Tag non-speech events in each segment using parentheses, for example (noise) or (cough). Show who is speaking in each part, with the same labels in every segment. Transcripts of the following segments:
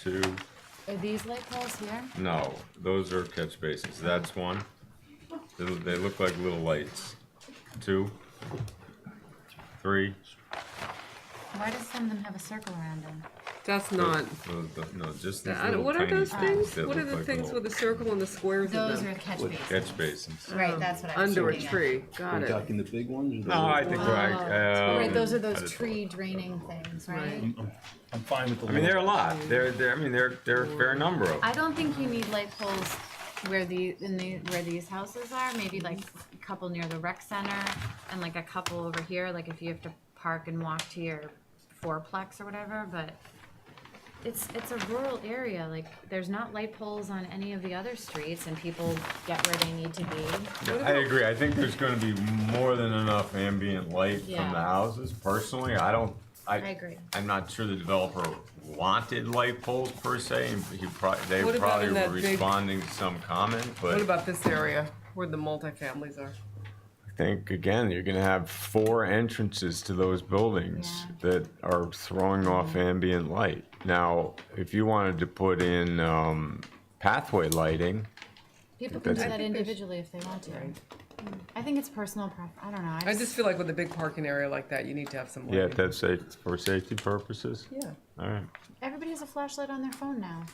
Speaker 1: two,
Speaker 2: Are these light poles here?
Speaker 1: no, those are catch bases, that's one. They, look- they look like little lights. Two, three,
Speaker 2: Why does some of them have a circle around them?
Speaker 3: That's not.
Speaker 1: those- those- no, just these
Speaker 3: I don't-
Speaker 1: little
Speaker 3: What are
Speaker 1: tiny
Speaker 3: those
Speaker 1: things
Speaker 3: things?
Speaker 1: that
Speaker 3: What are
Speaker 1: look
Speaker 3: the
Speaker 1: like
Speaker 3: things with
Speaker 1: little
Speaker 3: the circle and the squares in
Speaker 2: Those
Speaker 3: them?
Speaker 2: are catch
Speaker 4: With
Speaker 2: bases.
Speaker 1: catch bases.
Speaker 2: Right, that's what I was
Speaker 3: Under a
Speaker 2: thinking of. Oh,
Speaker 3: tree. Got
Speaker 4: We're
Speaker 3: it.
Speaker 4: talking the big ones? or the
Speaker 1: No, Oh, I
Speaker 4: little-
Speaker 1: think, like,
Speaker 2: Right, those are
Speaker 1: um,
Speaker 2: those tree draining things, right?
Speaker 5: I'm fine with the.
Speaker 1: I mean, there are a
Speaker 5: little-
Speaker 1: lot, there, there, I mean, there, there are a fair number of.
Speaker 2: I don't think you need light poles where the, in the, where these houses are, maybe like
Speaker 3: Mm-hmm.
Speaker 2: a couple near the rec center and like a couple over here, like if you have to park and walk to your fourplex or whatever, but it's, it's a rural area, like there's not light poles on any of the other streets and people get where they need to be.
Speaker 1: Yeah, I agree. I think there's gonna be more than enough ambient light from the
Speaker 2: Yeah.
Speaker 1: houses. Personally, I don't, I.
Speaker 2: I agree.
Speaker 1: I'm not sure the developer wanted light poles per se, and he probably, they
Speaker 3: What about
Speaker 1: probably
Speaker 3: in
Speaker 1: were
Speaker 3: that big-
Speaker 1: responding to some comment,
Speaker 3: What
Speaker 1: but.
Speaker 3: about this area where the multifamilies are?
Speaker 1: I think, again, you're gonna have four entrances to those buildings that are throwing off
Speaker 2: Mm-hmm.
Speaker 1: ambient light. Now, if you wanted to put in, um, pathway lighting,
Speaker 2: People can do
Speaker 1: That's-
Speaker 2: that
Speaker 3: I think they should-
Speaker 2: individually if they want to. I think it's personal pref, I don't know, I
Speaker 3: I
Speaker 2: just,
Speaker 3: just feel like with a big parking area like that, you need to have some
Speaker 1: yeah,
Speaker 3: lighting.
Speaker 1: if that's safe, for safety purposes,
Speaker 3: Yeah.
Speaker 1: all right.
Speaker 2: everybody has a flashlight on their phone now.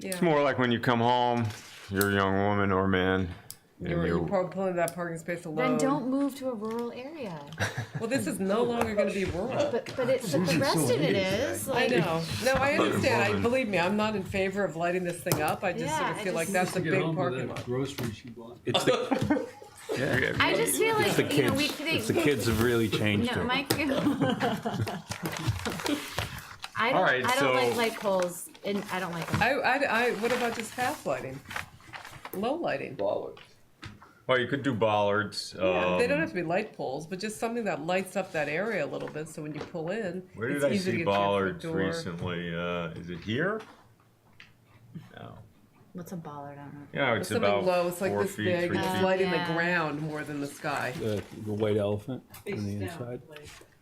Speaker 1: It's more like when you come home, you're a young woman or man, and
Speaker 3: You're, you're
Speaker 1: you're,
Speaker 3: probably pulling that parking space
Speaker 2: Then
Speaker 3: alone.
Speaker 2: don't move to a rural area.
Speaker 3: Well, this is no longer gonna
Speaker 2: (laughs)
Speaker 3: be rural.
Speaker 2: But, but it, but the rest of it is,
Speaker 3: I
Speaker 2: like,
Speaker 3: know. No, I understand. I,
Speaker 1: woman.
Speaker 3: believe me, I'm not in favor of lighting this thing up. I just sort
Speaker 2: Yeah,
Speaker 3: of
Speaker 2: I
Speaker 3: feel like
Speaker 2: just-
Speaker 3: that's a
Speaker 6: to get
Speaker 3: big
Speaker 6: home with
Speaker 3: parking
Speaker 6: the
Speaker 3: lot.
Speaker 6: groceries she bought.
Speaker 4: It's the,
Speaker 2: I just feel
Speaker 4: it's the
Speaker 2: like, you know, we,
Speaker 4: kids, it's the
Speaker 2: they,
Speaker 4: kids have really changed
Speaker 2: no,
Speaker 4: it.
Speaker 2: Mike. (laughs) I
Speaker 1: All right,
Speaker 2: don't, I
Speaker 1: so-
Speaker 2: don't like light poles, and I don't like them.
Speaker 3: I, I, I, what about just half lighting? Low lighting?
Speaker 1: well, you could do bollards.
Speaker 3: Yeah,
Speaker 1: um,
Speaker 3: they don't have to be light poles, but just something that lights up that area a little bit, so when you pull in,
Speaker 1: Where did
Speaker 3: it's
Speaker 1: I
Speaker 3: easy to
Speaker 1: see
Speaker 3: get to your front
Speaker 1: bollards
Speaker 3: door.
Speaker 1: recently? Uh, is it here? No.
Speaker 2: What's a bollard, I don't know.
Speaker 1: Yeah, it's
Speaker 3: Something
Speaker 1: about
Speaker 3: low, it's like
Speaker 1: four
Speaker 3: this
Speaker 1: feet,
Speaker 3: big,
Speaker 1: three
Speaker 3: it's
Speaker 1: feet.
Speaker 3: lighting
Speaker 2: Yeah.
Speaker 3: the ground more than the sky.
Speaker 4: The, the white elephant on the inside.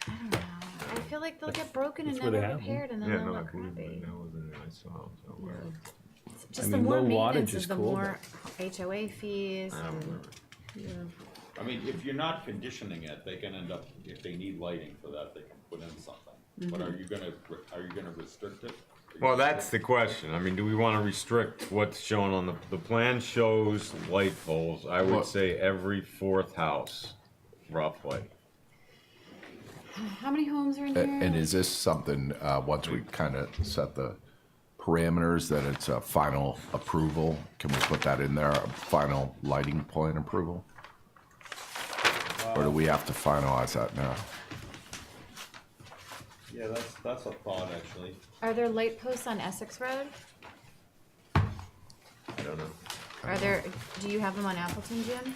Speaker 2: I feel like they'll get broken and
Speaker 4: That's where
Speaker 2: never
Speaker 4: they have them.
Speaker 2: repaired, and then
Speaker 1: Yeah,
Speaker 2: they'll
Speaker 1: no,
Speaker 3: Oh,
Speaker 1: I
Speaker 2: look
Speaker 1: couldn't
Speaker 2: crappy.
Speaker 1: even- that was in there. I saw it somewhere.
Speaker 2: Just
Speaker 4: I
Speaker 2: the
Speaker 4: mean,
Speaker 2: more
Speaker 4: low wattage
Speaker 2: maintenance is
Speaker 4: is
Speaker 2: the
Speaker 4: cool,
Speaker 2: more HOA fees.
Speaker 4: Um,
Speaker 1: I don't
Speaker 2: and-
Speaker 1: remember.
Speaker 7: I mean, if you're not conditioning it, they can end up, if they need lighting for that, they can put in something. But are you gonna, are you gonna restrict it?
Speaker 1: Well, that's the question. I mean, do we want to restrict what's shown on the, the plan shows light poles, I would say every fourth house, roughly.
Speaker 2: How many homes are in
Speaker 8: A-
Speaker 2: here?
Speaker 8: And is this something, uh, once we kind of set the parameters, that it's a final approval? Can we put that in there, a final lighting plan approval? Or do we have to finalize that now?
Speaker 7: Yeah, that's, that's a thought, actually.
Speaker 2: Are there light posts on Essex Road?
Speaker 1: I don't know.
Speaker 2: Are there, do you have them on Appleton, Jim?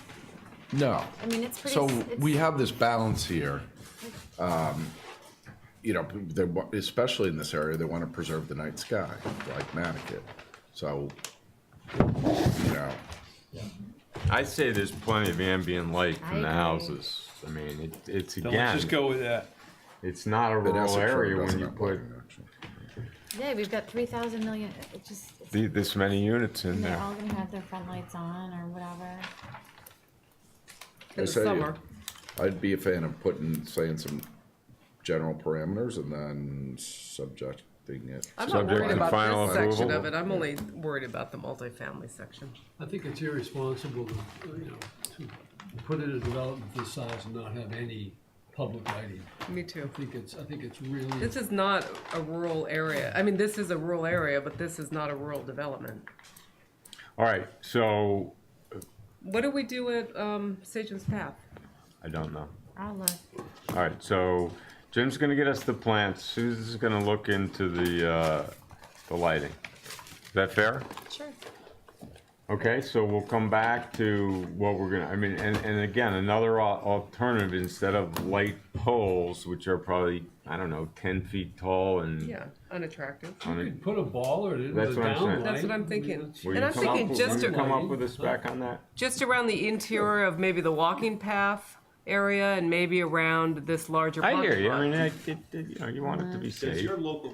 Speaker 8: No.
Speaker 2: I mean, it's pretty.
Speaker 8: So
Speaker 2: s- it's-
Speaker 8: we have this balance here. um, You know, they wa- especially in this area, they want to preserve the night sky, like Matticat. So, you know,
Speaker 1: I say there's plenty of ambient light
Speaker 2: I
Speaker 1: from the
Speaker 2: agree.
Speaker 1: houses. I mean, it, it's
Speaker 4: Now, let's
Speaker 1: again,
Speaker 4: just go with that.
Speaker 1: it's not a
Speaker 8: but
Speaker 1: rural
Speaker 8: Essex Road
Speaker 1: area when
Speaker 8: doesn't
Speaker 1: you
Speaker 8: have
Speaker 1: put
Speaker 8: lighting, actually.
Speaker 2: Yeah, we've got three thousand million, it just, it's-
Speaker 1: the- this many units in
Speaker 2: and they're
Speaker 1: there.
Speaker 2: all gonna have their front lights on or whatever.
Speaker 3: In the
Speaker 8: say-
Speaker 3: summer,
Speaker 8: I'd be a fan of putting, saying some general parameters and then subjecting it.
Speaker 3: I'm not
Speaker 1: Subject
Speaker 3: worried
Speaker 1: to final
Speaker 3: about this section
Speaker 1: approval.
Speaker 3: of it, I'm only worried about the multifamily section.
Speaker 6: I think it's irresponsible to, you know, to put in a development this size and not have any public lighting.
Speaker 3: Me too.
Speaker 6: I think it's, I think it's really,
Speaker 3: This is not a rural area, I mean, this is a rural area, but this is not a rural development.
Speaker 1: All right, so,
Speaker 3: What do we do at, um, Sagem's Path?
Speaker 1: I don't know.
Speaker 2: I'll look.
Speaker 1: All right, so Jim's gonna get us the plants, Susan's gonna look into the, uh, the lighting. Is that fair?
Speaker 2: Sure.
Speaker 1: Okay, so we'll come back to what we're gonna, I mean, and, and again, another al- alternative, instead of light poles, which are probably, I don't know, ten feet tall and
Speaker 3: Yeah, unattractive.
Speaker 1: on a-
Speaker 6: you could put a baller in the
Speaker 1: That's what I'm saying.
Speaker 6: downlight.
Speaker 3: That's what
Speaker 6: I
Speaker 3: I'm
Speaker 6: mean,
Speaker 3: thinking.
Speaker 6: that's-
Speaker 1: Will
Speaker 3: And
Speaker 1: you
Speaker 3: I'm
Speaker 1: come up-
Speaker 3: thinking just,
Speaker 1: Will you come up
Speaker 6: to-
Speaker 1: with a spec on that?
Speaker 3: just around the interior of maybe the walking path area and maybe around this larger
Speaker 1: I hear
Speaker 3: parking
Speaker 1: you, I
Speaker 3: lot.
Speaker 1: mean, I- it- it- you know, you want it to be
Speaker 7: Does
Speaker 1: safe.
Speaker 7: your local